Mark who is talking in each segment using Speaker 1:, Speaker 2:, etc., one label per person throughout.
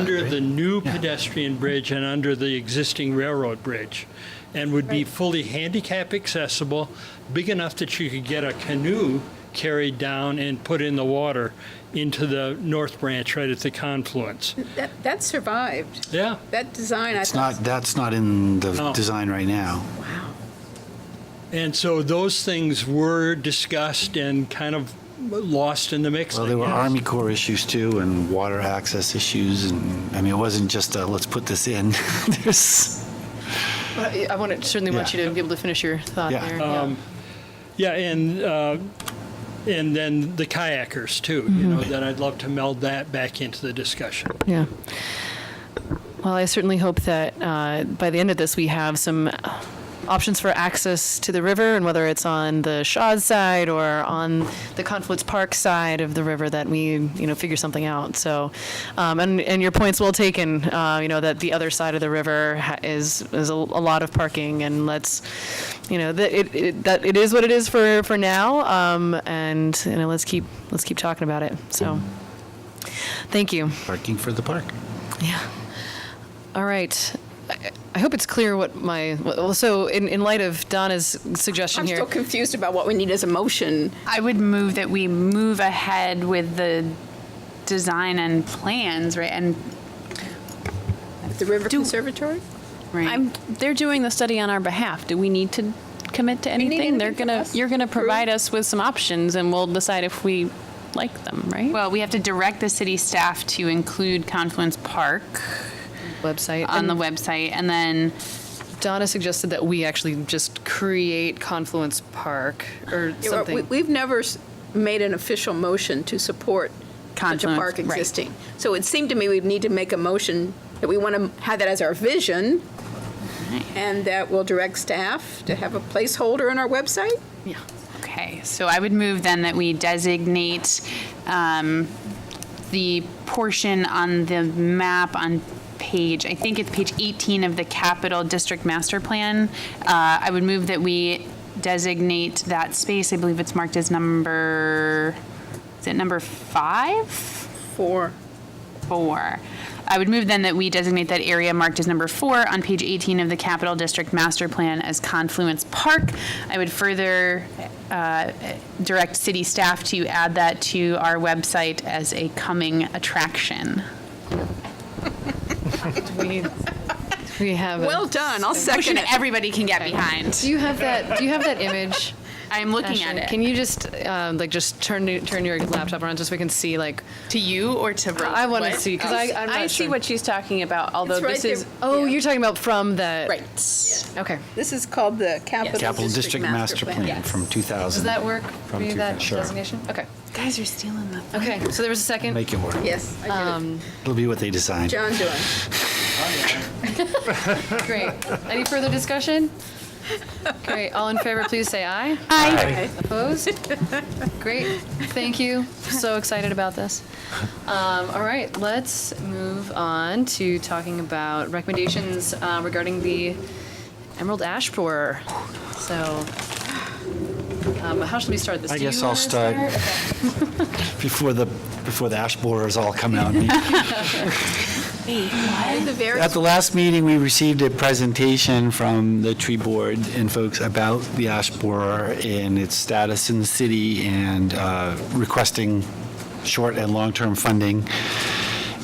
Speaker 1: Under the new pedestrian bridge and under the existing railroad bridge, and would be fully handicap accessible, big enough that you could get a canoe carried down and put in the water into the North Branch right at the confluence.
Speaker 2: That, that survived.
Speaker 1: Yeah,
Speaker 2: That design, I
Speaker 3: It's not,
Speaker 2: thought,
Speaker 3: that's not in the
Speaker 1: No.
Speaker 3: design right now.
Speaker 2: wow.
Speaker 1: and so those things were discussed and kind of lost in the mix.
Speaker 3: Well,
Speaker 1: I
Speaker 3: there were
Speaker 1: guess.
Speaker 3: Army Corps issues too, and water access issues, and, I mean, it wasn't just a, let's put this in. There's,
Speaker 4: I I want to, certainly want you
Speaker 3: Yeah.
Speaker 4: to be able to finish your thought
Speaker 3: Yeah.
Speaker 4: there. yeah.
Speaker 1: Yeah, and uh, and then the kayakers too. You know, that I'd love to meld that back into the discussion.
Speaker 4: Yeah. Well, I certainly hope that uh, by the end of this, we have some options for access to the river, and whether it's on the Shaw's side or on the Confluence Park side of the river, that we you know figure something out. So, um, and and your points well taken. Uh, you know that the other side of the river ha- is is a, a lot of parking, and let's you know that it, it that it is what it is for for now. Um, and you know let's keep let's keep talking about it. So, thank you.
Speaker 3: parking for the park.
Speaker 4: Yeah. All right. I- I hope it's clear what my, well, so in, in light of Donna's suggestion
Speaker 2: I'm
Speaker 4: here,
Speaker 2: still confused about what we need as a motion.
Speaker 5: I would move that we move ahead with the design and plans, right? And
Speaker 2: The River
Speaker 5: Do-
Speaker 2: Conservatory?
Speaker 5: right.
Speaker 6: I'm, they're doing the study on our behalf. Do we need to commit to
Speaker 2: need
Speaker 6: anything? They're
Speaker 2: anything from
Speaker 6: gonna,
Speaker 2: us?
Speaker 6: you're gonna
Speaker 2: Approve?
Speaker 6: provide us with some options and we'll decide if we like them, right?
Speaker 5: well, we have to direct the city staff to include Confluence Park
Speaker 4: website.
Speaker 5: on the
Speaker 4: and
Speaker 5: website, and then
Speaker 4: Donna suggested that we actually just create Confluence Park
Speaker 2: Yeah,
Speaker 4: or
Speaker 2: well, we-
Speaker 4: something.
Speaker 2: We've never s- made an official motion to support such a
Speaker 5: Confluence,
Speaker 2: park
Speaker 5: right.
Speaker 2: existing. So it seemed to me we'd need to make a motion that we want to have that as our vision, and that we'll direct staff to have a placeholder on our website?
Speaker 5: okay. So I would move then that we designate um, the portion on the map on page, I think it's page 18 of the Capital District Master Plan. Uh, I would move that we designate that space, I believe it's marked as number, is it number five?
Speaker 2: For,
Speaker 5: four. I would move then that we designate that area marked as number four on page 18 of the Capital District Master Plan as Confluence Park. I would further uh, direct city staff to add that to our website as a coming attraction.
Speaker 4: We- We have,
Speaker 2: well
Speaker 4: a-
Speaker 2: done, I'll
Speaker 5: Motion
Speaker 2: second it.
Speaker 5: everybody can get
Speaker 4: do
Speaker 5: behind.
Speaker 4: you have that, do you have that image?
Speaker 5: I'm looking
Speaker 4: Ashley?
Speaker 5: at
Speaker 4: Can
Speaker 5: it.
Speaker 4: you just, um, like, just turn, your- turn your laptop around just so we can see, like,
Speaker 5: To you or to Rose?
Speaker 4: I want to see, because I, I'm
Speaker 6: I
Speaker 4: not
Speaker 6: see
Speaker 4: sure.
Speaker 6: what she's talking about, although
Speaker 2: It's right
Speaker 6: this is,
Speaker 2: there.
Speaker 4: Oh,
Speaker 2: Yeah.
Speaker 4: you're talking about from the.
Speaker 2: Right.
Speaker 4: Okay.
Speaker 2: This is called the
Speaker 3: Capital District Master Plan
Speaker 2: Yes.
Speaker 3: from 2000.
Speaker 4: Does that work for
Speaker 3: From
Speaker 4: you, that
Speaker 3: 2000, sure.
Speaker 4: designation? Okay.
Speaker 5: Guys are stealing the.
Speaker 4: Okay, so there was a second.
Speaker 3: Make it work.
Speaker 2: Yes, I get it.
Speaker 3: It'll be what they design.
Speaker 2: John doing.
Speaker 4: Great. Any further discussion? Great. All in favor, please say aye.
Speaker 5: Hi.
Speaker 4: Opposed? Great. Thank you. So excited about this. Um, all right, let's move on to talking about recommendations uh, regarding the Emerald Ash Borer. So, um, how should we start this?
Speaker 3: I
Speaker 4: Do you
Speaker 3: guess I'll
Speaker 4: wanna
Speaker 3: start before the, before the ash borers all come out.
Speaker 2: At the very
Speaker 3: At the last meeting, we received a presentation from the tree board and folks about the ash borer and its status in the city and uh, requesting short and long-term funding.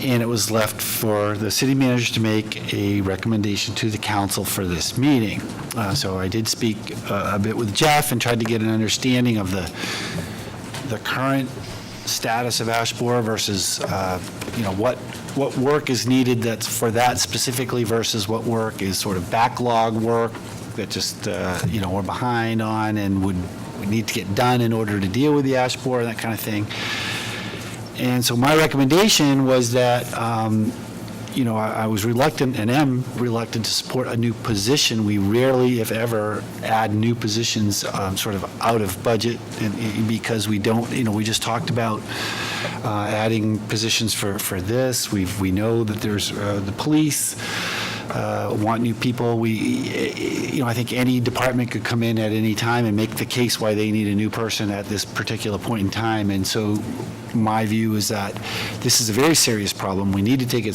Speaker 3: And it was left for the city manager to make a recommendation to the council for this meeting. Uh, So I did speak uh, a bit with Jeff and tried to get an understanding of the the current status of ash borer versus, uh, you know, what, what work is needed that's for that specifically versus what work is sort of backlog work that just, uh, you know, we're behind on and would, we need to get done in order to deal with the ash borer, that kind of thing. And so my recommendation was that, um, you know, I I was reluctant and am reluctant to support a new position. We rarely, if ever, add new positions um, sort of out of budget and- and because we don't, you know, we just talked about uh, adding positions for, for this. We, we know that there's uh, the police uh, want new people. We, you know, I think any department could come in at any time and make the case why they need a new person at this particular point in time. And so my view is that this is a very serious problem. We need to take it